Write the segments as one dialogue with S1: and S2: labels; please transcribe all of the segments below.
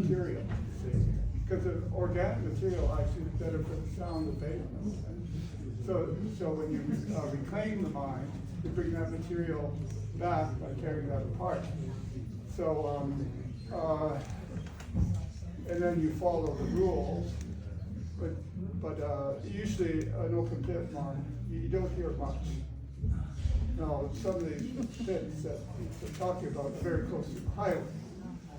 S1: material. Because the organic material actually is better for the sound of pavement. So, so when you uh, reclaim the mine, you bring that material back by tearing that apart. So, um, uh, and then you follow the rules. But, but, uh, usually an open pit mine, you you don't hear much. No, some of these pits that we're talking about are very close to the highway.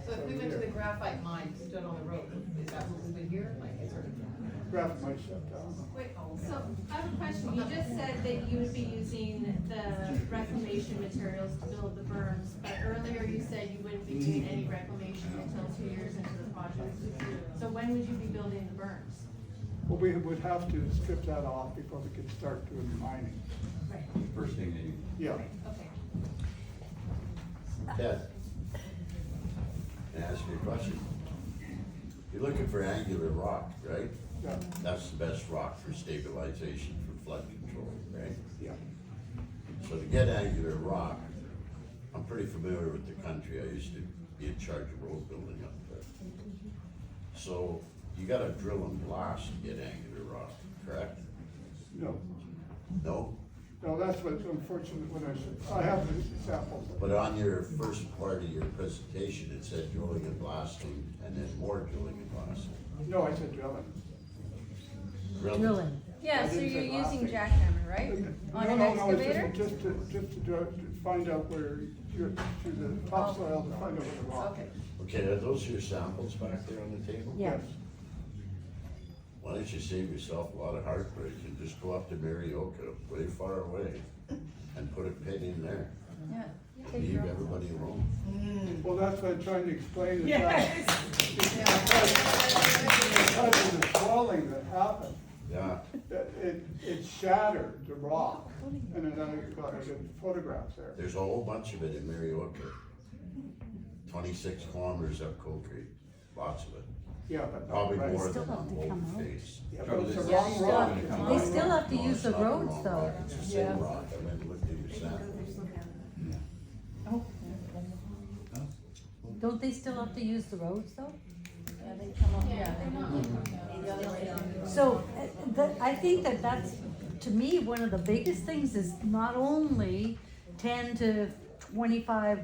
S2: So if we went to the
S1: Here.
S2: graphite mine, stood on the road, is that what we would hear? Like, is there?
S1: Graph might shut down.
S3: Wait, so I have a question. You just said that you would be using the reclamation materials to build the berms, but earlier you said you wouldn't be doing any reclamation until two years into the project. So when would you be building the berms?
S1: Well, we would have to strip that off before we could start doing the mining.
S3: Right,
S4: First thing that you.
S1: Yeah.
S3: okay.
S5: Ted, can I ask you a question? You're looking for angular rock, right?
S1: Yeah.
S5: That's the best rock for stabilization for flood control, right?
S1: Yeah.
S5: So to get angular rock, I'm pretty familiar with the country, I used to be in charge of road building up there. So you gotta drill and blast to get angular rock, correct?
S1: No,
S5: No?
S1: no, that's what's unfortunate when I said, I have the samples.
S5: But on your first part of your presentation, it said drilling and blasting, and then more drilling and blasting.
S1: No, I said drilling.
S6: Drilling.
S7: Yeah, so
S1: didn't
S7: you're
S1: say last
S7: using
S1: thing.
S7: jackhammer, right?
S1: No,
S7: On an
S1: no, no, it's
S7: excavator?
S1: Just just to, just to dr- to find out where you're, to the topsoil, to find out where the rock
S2: Okay.
S1: is.
S5: Okay, are those your samples back there on the table?
S6: Yeah.
S5: Why don't you save yourself a lot of heartbreak and just go up to Marioka, way far away, and put a pit in there?
S7: Yeah. Take
S5: Leave
S7: your own.
S5: everybody alone.
S1: Well, that's what I'm trying to explain is that. Because of the swelling that happened,
S5: Yeah,
S1: that it, it shattered the rock. And then I got good photographs there.
S5: there's a whole bunch of it in Marioka. Twenty-six kilometers up Cold Creek, lots of it,
S1: Yeah, but not
S5: probably
S1: right.
S5: more
S6: Still
S5: than
S6: have to
S5: on
S6: come
S5: both
S6: out.
S5: face.
S1: Yeah, but it's the
S4: Yeah,
S1: wrong rock.
S4: still-
S6: They still have to
S5: No,
S6: use
S5: it's
S6: the
S5: not wrong
S6: roads
S5: rock.
S6: though.
S5: It's the same rock, I went and looked at your samples.
S6: Don't they still have to use the roads though?
S7: Yeah, they come up, yeah.
S6: So, uh, that, I think that that's, to me, one of the biggest things is not only ten to twenty-five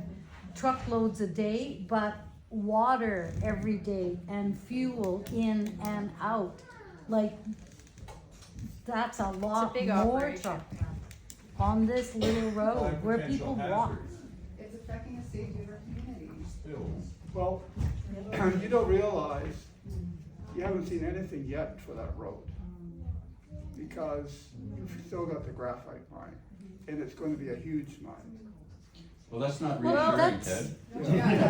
S6: truckloads a day, but water every day and fuel in and out. Like, that's a lot
S7: big
S6: more
S7: operation.
S6: truck on this little road where people walk.
S2: It's affecting the safety of our community.
S1: Well, you don't realize, you haven't seen anything yet for that road. Because you've still got the graphite mine, and it's gonna be a huge mine.
S4: Well, that's not
S6: Well,
S4: reassuring,
S6: that's-
S4: Ted.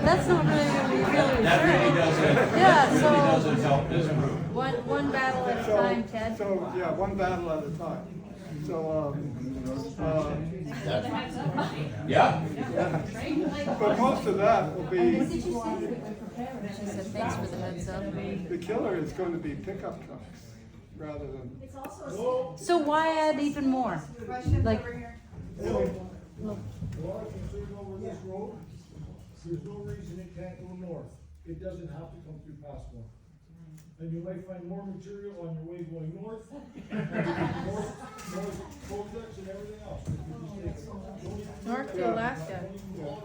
S6: That's not really gonna be really
S4: That really
S6: true.
S4: doesn't, that
S6: Yeah,
S4: really
S6: so-
S4: doesn't help this group.
S7: One, one battle at a
S1: So-
S7: time, Ted.
S1: So, yeah, one battle at a time. So, um, uh,
S5: That,
S4: Yeah,
S1: but most of that will be,
S7: She said, thanks for the heads up.
S1: the killer is going to be pickup trucks rather than,
S6: So why add even more?
S2: Questions
S6: Like-
S2: over here?
S8: Well, I can say over this road, there's no reason it can't go north, it doesn't have to come through Pasco. And you might find more material on your way going north, north, north, projects and everything else.
S7: North to Alaska.
S8: Don't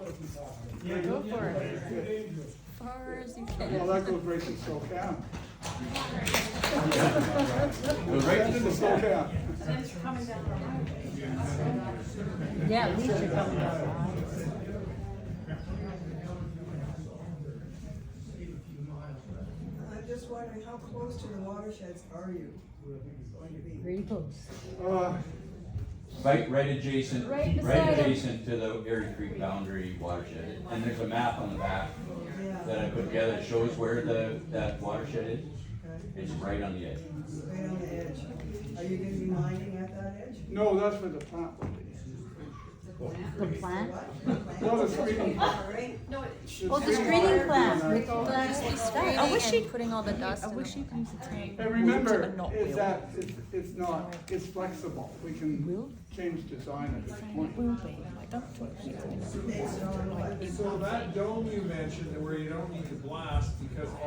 S8: even go out of
S7: Go
S8: Pasco.
S7: for it.
S8: It's too dangerous.
S7: Far as you
S1: well,
S7: can.
S1: that goes right to Spokane.
S4: goes right
S1: Send
S4: to
S1: it to
S4: Spokane.
S1: Spokane.
S6: Yeah, we should come down.
S9: I'm just wondering, how close to the watersheds are you going to be?
S6: Pretty close.
S1: Uh,
S4: Right, right adjacent,
S7: Right
S4: right
S7: beside 'em.
S4: adjacent to the Erie Creek boundary watershed. And there's a map on the back that I put together that shows where the, that watershed is. It's right on the edge.
S9: Right on the edge. Are you gonna be mining at that edge?
S1: No, that's where the plant will be.
S6: The plant?
S1: No, the screening.
S9: All right.
S6: Oh, the screening plant with all that. I wish she,
S7: putting all the dust. I wish she comes to town.
S1: And remember, it's that, it's, it's not, it's flexible. We
S6: Will?
S1: can change design at this point.
S9: Okay, so, uh,
S10: So that dome you mentioned where you don't need to blast because